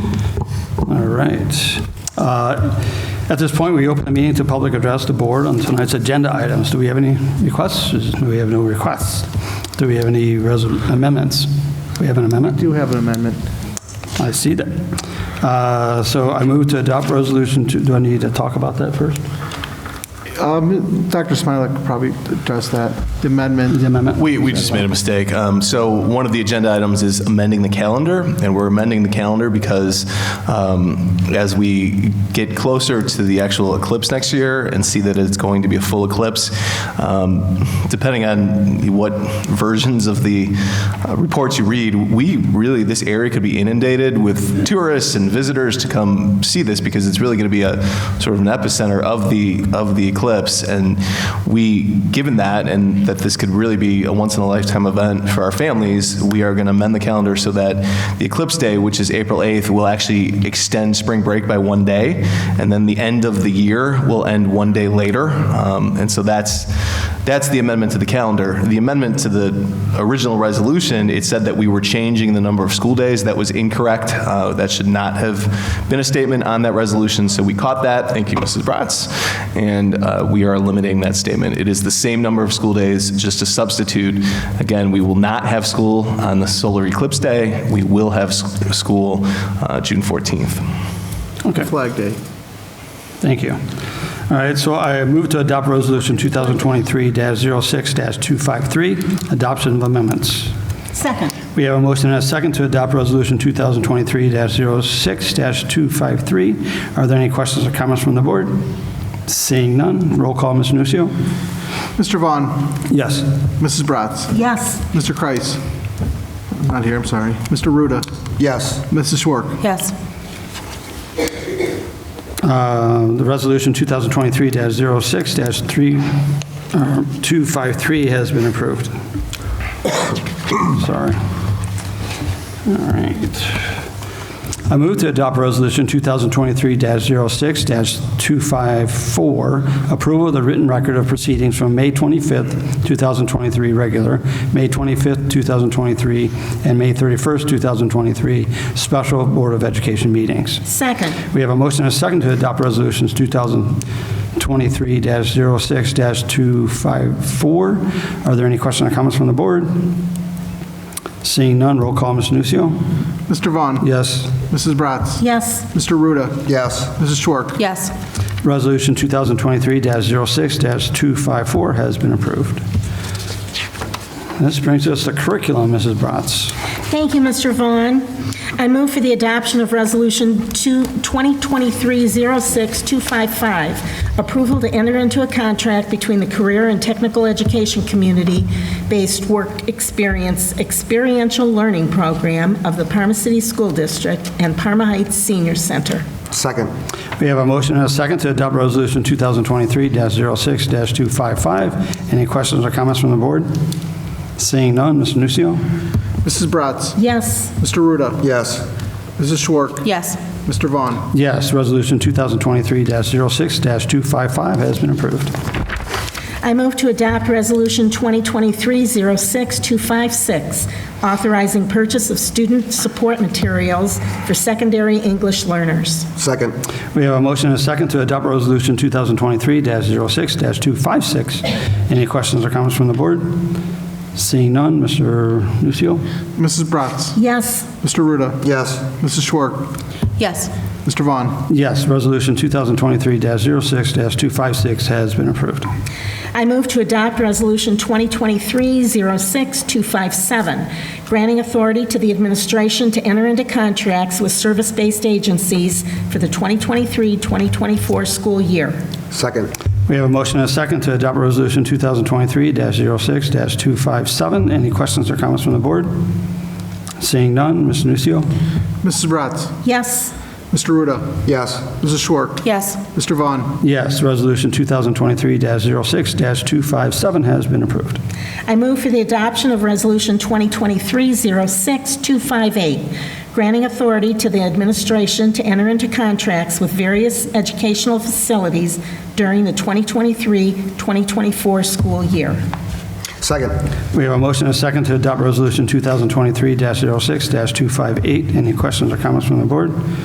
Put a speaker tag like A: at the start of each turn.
A: right. Uh, At this point, we open the meeting to public address the board on tonight's agenda items. Do we have any requests? Do we have no requests? Do we have any resol- amendments? We have an amendment?
B: Do have an amendment.
A: I see that. Uh, So I move to adopt resolution, to- do I need to talk about that first?
B: Um, Dr. Smilak could probably address that, the amendment.
A: The amendment?
C: We, we just made a mistake. Um, So one of the agenda items is amending the calendar, and we're amending the calendar because um, as we get closer to the actual eclipse next year and see that it's going to be a full eclipse, um, depending on what versions of the uh, reports you read, we really, this area could be inundated with tourists and visitors to come see this because it's really going to be a sort of an epicenter of the of the eclipse. And we, given that, and that this could really be a once in a lifetime event for our families, we are going to amend the calendar so that the eclipse day, which is April 8th, will actually extend spring break by one day, and then the end of the year will end one day later. Um, and so that's that's the amendment to the calendar. The amendment to the original resolution, it said that we were changing the number of school days. That was incorrect. Uh, That should not have been a statement on that resolution, so we caught that. Thank you, Mrs. Bratz. And uh, we are eliminating that statement. It is the same number of school days, just a substitute. Again, we will not have school on the solar eclipse day. We will have s- school uh, June 14th.
A: Okay,
B: Flag Day.
A: thank you. All right, so I move to adopt resolution 2023-06-253, adoption of amendments.
D: Second.
A: We have a motion and a second to adopt resolution 2023-06-253. Are there any questions or comments from the board? Seeing none, roll call, Ms. Nucio.
B: Mr. Vaughn,
A: Yes.
B: Mrs. Bratz,
D: Yes.
B: Mr. Kreis. I'm Not here, I'm sorry. Mr. Ruda,
E: Yes.
B: Mrs. Schwark.
D: Yes.
A: Uh, The resolution uh, 2023-06-253 has been approved. Sorry. All right. I move to adopt Resolution 2023-06-254, approval of the written record of proceedings from May 25th, 2023, regular, May 25th, 2023, and May 31st, 2023, special Board of Education meetings.
D: Second.
A: We have a motion and a second to adopt resolutions 2023-06-254. Are there any questions or comments from the board? Seeing none, roll call, Ms. Nucio.
B: Mr. Vaughn.
A: Yes.
B: Mrs. Bratz.
D: Yes.
B: Mr. Ruda.
E: Yes.
B: Mrs. Schwark.
D: Yes.
A: Resolution 2023-06-254 has been approved. This brings us to curriculum, Mrs. Bratz.
D: Thank you, Mr. Vaughn. I move for the adoption of Resolution 2 2023-06-255, approval to enter into a contract between the Career and Technical Education Community-Based Work Experience Experiential Learning Program of the Parma City School District and Parma Heights Senior Center.
E: Second.
A: We have a motion and a second to adopt resolution 2023-06-255. Any questions or comments from the board? Seeing none, Ms. Nucio.
B: Mrs. Bratz.
D: Yes.
B: Mr. Ruda.
E: Yes.
B: Mrs. Schwark.
D: Yes.
B: Mr. Vaughn.
A: Yes, Resolution 2023-06-255 has been approved.
D: I move to adopt Resolution 2023-06-256, authorizing purchase of student support materials for secondary English learners.
E: Second.
A: We have a motion and a second to adopt Resolution 2023-06-256. Any questions or comments from the board? Seeing none, Mr. Nucio?
B: Mrs. Bratz.
D: Yes.
B: Mr. Ruda.
E: Yes.
B: Mrs. Schwark.
D: Yes.
B: Mr. Vaughn.
A: Yes, Resolution 2023-06-256 has been approved.
D: I move to adopt Resolution 2023-06-257, granting authority to the administration to enter into contracts with service-based agencies for the 2023-2024 school year.
E: Second.
A: We have a motion and a second to adopt Resolution 2023-06-257. Any questions or comments from the board? Seeing none, Mr. Nucio?
B: Mrs. Bratz.
D: Yes.
B: Mr. Ruda.
E: Yes.
B: Mrs. Schwark.
D: Yes.
B: Mr. Vaughn.
A: Yes, Resolution 2023-06-257 has been approved.
D: I move for the adoption of Resolution 2023-06-258, granting authority to the administration to enter into contracts with various educational facilities during the 2023-2024 school year.
E: Second.
A: We have a motion and a second to adopt Resolution 2023-06-258. Any questions or comments from the board?